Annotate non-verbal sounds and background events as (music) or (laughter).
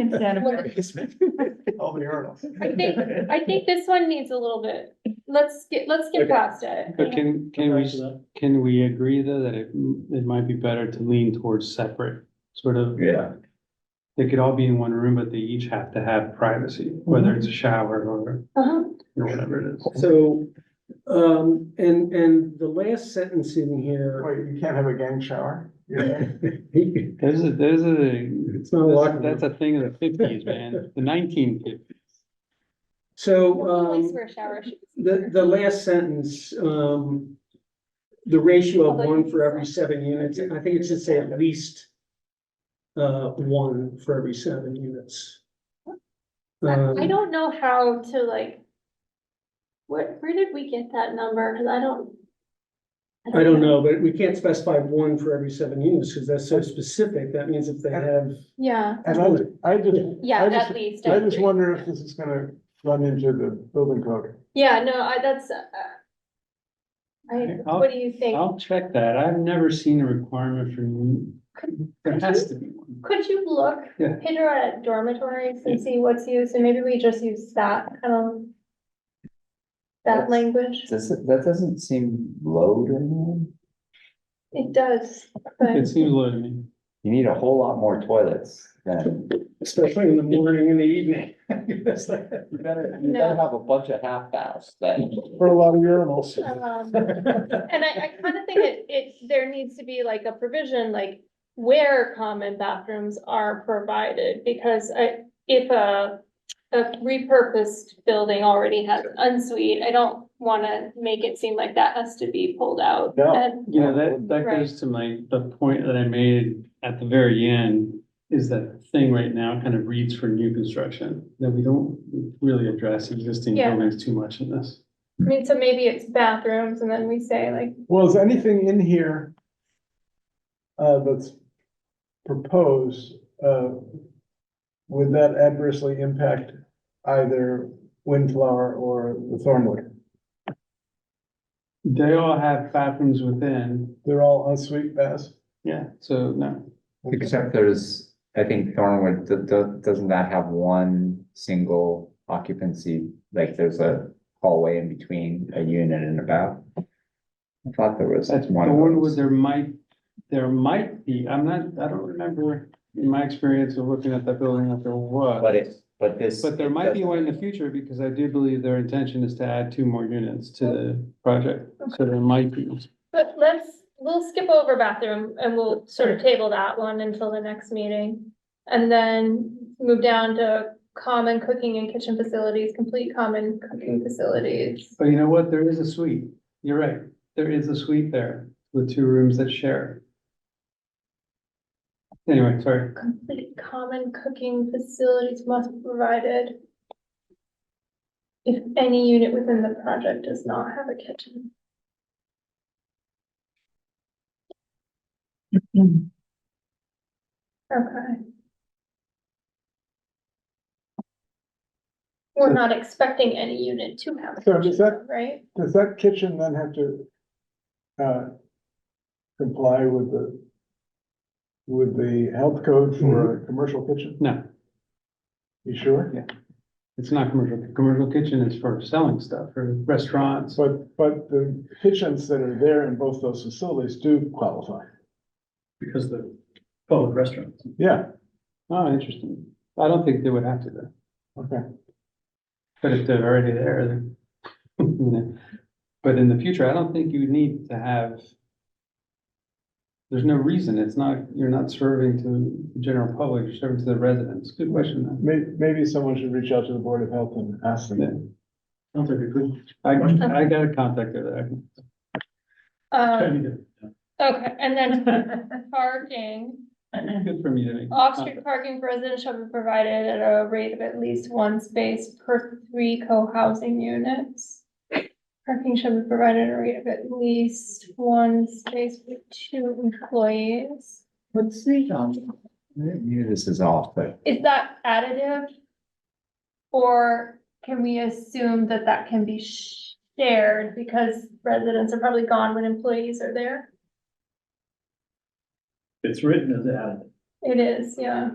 (laughs) in Santa Fe. Over the hurdles. I think, I think this one needs a little bit, let's get, let's get Okay. past it. But can, can we, can we agree though that it, it might be better to lean towards separate, sort of? Yeah, They could all be in one room, but they each have to have privacy, whether it's a shower or, Uh-huh. or whatever it is. So, um, and, and the last sentence in here, wait, you can't have a gang shower? he- There's a, there's a, it's not a that's, lot. that's a thing of the fifties, man, the nineteen fifties. So, Always um, wear shower shoes. the, the last sentence, um, the ratio of one for every seven units, I think it should say at least uh, one for every seven units. I I Um, don't know how to like. What, where did we get that number? Cause I don't. I don't know, but we can't specify one for every seven units, because that's so specific, that means if they have. Yeah, And I, I just, yeah, I just- at least. I just agree. wonder if this is gonna run into the building code. Yeah, no, I, that's, uh. I, I'll- what do you think? I'll check that. I've never seen a requirement for, there has to be one. Could you look, Yeah. Pedro, at dormitories and see what's used, and maybe we just use that, um. That That's- language, Does, it- that doesn't seem low to me. it does, but. It seems low to me. You need a whole lot more toilets than, Especially in the morning and the evening. (laughs) you better, you you better better have a bunch of half baths then. For a lot of urinals. Um, And I, I kind of think it, it, there needs to be like a provision, like where common bathrooms are provided, because I, if a, a repurposed building already has an suite, I don't want to make it seem like that has to be pulled out. No. And You know, that, that Right. goes to my, the point that I made at the very end, is that thing right now kind of reads for new construction, that we don't really address existing Yeah. buildings too much in this. I mean, so maybe it's bathrooms and then we say like, Well, is anything in here uh, that's proposed, uh, would that adversely impact either Windflower or the Thornwood? They all have bathrooms within, They're all ensuite baths? yeah, so no, Except there's, I think Thornwood, do- do- doesn't that have one single occupancy? Like there's a hallway in between a unit and a bath? I thought there was that's one. one, of was those. there might, there might be, I'm not, I don't remember in my experience of looking at that building that there was. But it, but this. But there might be one in the future, because I do believe their intention is to add two more units to Oh. the project, so there might be. but let's, we'll skip over bathroom and we'll sort of table that one until the next meeting. And then move down to common cooking and kitchen facilities, complete common cooking facilities. But you know what, there is a suite, you're right, there is a suite there with two rooms that share. Anyway, sorry, Complete common cooking facilities must be provided. If any unit within the project does not have a kitchen. Okay. We're not expecting any unit to have a So is that- kitchen, right? Does that kitchen then have to uh, comply with the with the health code for Mm-hmm. a commercial kitchen? no, You sure? it's not commercial, commercial kitchen is for selling stuff, for restaurants, But, but the kitchens that are there in both those facilities do qualify. because the public restaurants. Yeah, Oh, interesting, I don't think they would have to though, okay. but if they're already there, then. (laughs) you know. But in the future, I don't think you need to have. There's no reason, it's not, you're not serving to the general public, you're serving to the residents, good question though. May, maybe someone should reach out to the Board of Health and ask Yeah. them. Sounds like a good. I, I got a contact there that I can. Um, okay, and then parking. Good for me to make. Off-street parking for residents shall be provided at a rate of at least one space per three co-housing units. Parking shall be provided at a rate of at least one space for two employees. Let's see, um, maybe this is off, but Is that additive? Or can we assume that that can be shared because residents are probably gone when employees are there? It's written as added. It is, yeah.